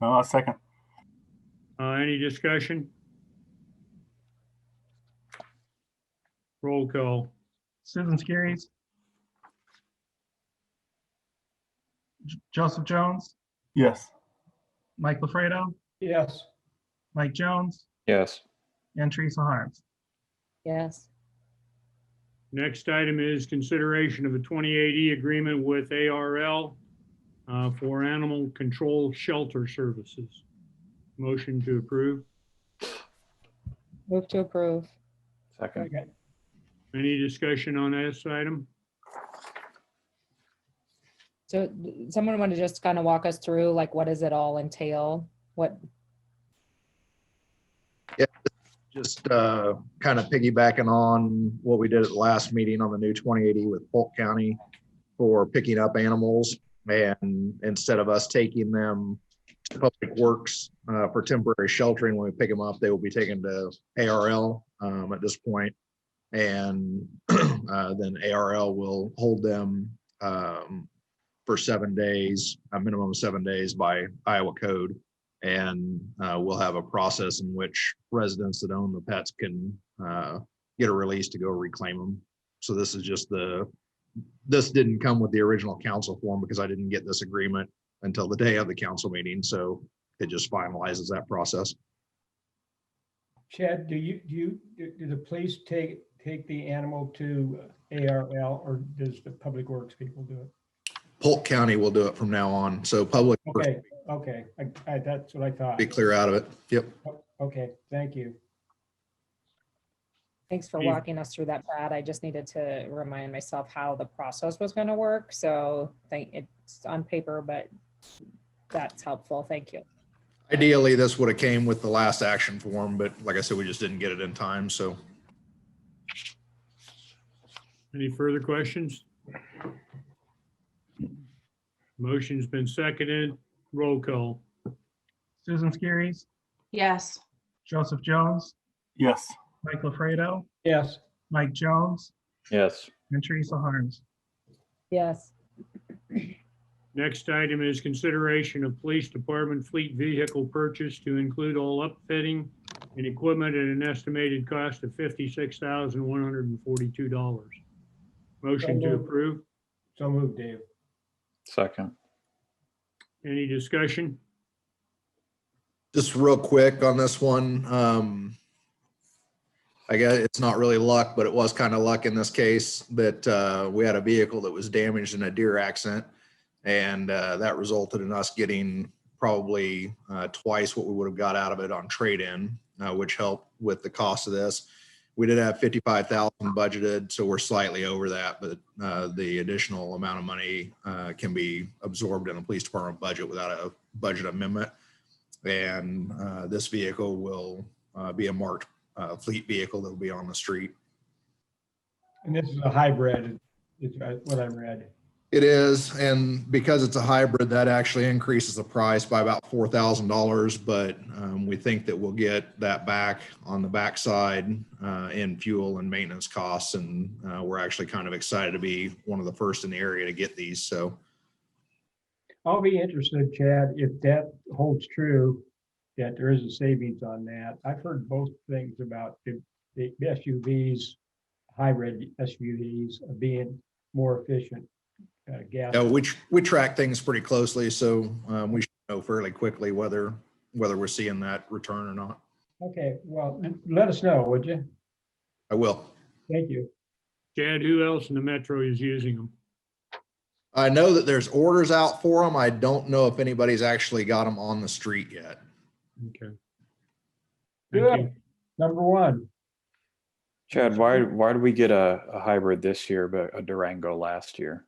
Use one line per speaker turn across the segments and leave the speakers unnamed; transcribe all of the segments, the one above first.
No, I'll second.
Uh, any discussion? Roll call.
Susan Skiris. J- Joseph Jones,
Yes.
Mike LaFredo,
yes,
Mike Jones,
yes,
and Teresa Harms.
yes,
Next item is consideration of a 2080 agreement with ARL uh, for animal control shelter services. Motion to approve.
move to approve,
second,
second,
Any discussion on this item?
so th- someone want to just kind of walk us through, like, what does it all entail? What,
just uh, kind of piggybacking on what we did at the last meeting on the new 2080 with Polk County for picking up animals. And instead of us taking them to Public Works uh, for temporary sheltering, when we pick them up, they will be taken to ARL um, at this point. And uh, then ARL will hold them um, for seven days, a minimum of seven days by Iowa code. And uh, we'll have a process in which residents that own the pets can uh, get a release to go reclaim them. So this is just the, this didn't come with the original council form because I didn't get this agreement until the day of the council meeting. So it just finalizes that process.
Chad, do you, do you, do do the police take, take the animal to ARL or does the public works people do it?
Polk County will do it from now on. So public, Works
Okay, okay, I, I, that's what I
will
thought.
be clear out of it. Yep.
Okay, thank you.
thanks for
Yeah.
walking us through that, Brad. I just needed to remind myself how the process was going to work, so thank, it's on paper, but that's helpful, thank you.
Ideally, this would have came with the last action form, but like I said, we just didn't get it in time. So
Any further questions? Motion's been seconded. Roll call.
Susan Skiris,
yes,
Joseph Jones,
Yes.
Mike LaFredo,
Yes,
Mike Jones,
yes,
and Teresa Harms.
Yes,
Next item is consideration of police department fleet vehicle purchase to include all upfitting and equipment at an estimated cost of fifty-six thousand one hundred and forty-two dollars. Motion to
moved.
approve.
so moved, Dave.
second,
Any discussion?
Just real quick on this one, um, I guess it's not really luck, but it was kind of luck in this case that, uh, we had a vehicle that was damaged in a deer accident. And, uh, that resulted in us getting probably, uh, twice what we would have got out of it on trade-in, uh, which helped with the cost of this. We did have fifty-five thousand budgeted, so we're slightly over that, but, uh, the additional amount of money, uh, can be absorbed in the police department budget without a budget amendment. And uh, this vehicle will uh, be a marked uh, fleet vehicle that'll be on the street.
And this is a hybrid, is what I read.
It is, and because it's a hybrid, that actually increases the price by about four thousand dollars, but um, we think that we'll get that back on the backside uh, in fuel and maintenance costs, and uh, we're actually kind of excited to be one of the first in the area to get these, so.
I'll be interested, Chad, if that holds true, that there is a savings on that. I've heard both things about the, the SUVs, hybrid SUVs being more efficient. uh, Gas,
Uh, we, tr- we track things pretty closely, so um, we should know fairly quickly whether, whether we're seeing that return or not.
okay, well, let us know, would you?
I will.
Thank you.
Chad, who else in the metro is using them?
I know that there's orders out for them. I don't know if anybody's actually got them on the street yet.
Okay. Thank you.
Good, number one,
Chad, why, why did we get a, a hybrid this year, but a Durango last year?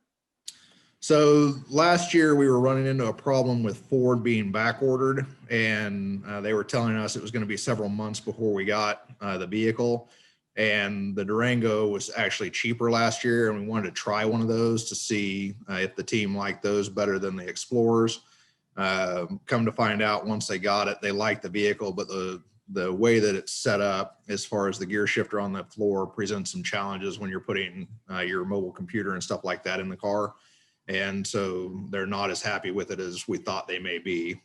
So last year we were running into a problem with Ford being back ordered and uh, they were telling us it was going to be several months before we got uh, the vehicle. And the Durango was actually cheaper last year and we wanted to try one of those to see uh, if the team liked those better than the Explorers. Um, come to find out, once they got it, they liked the vehicle, but the the way that it's set up, as far as the gear shifter on the floor, presents some challenges when you're putting uh, your mobile computer and stuff like that in the car. And so they're not as happy with it as we thought they may be.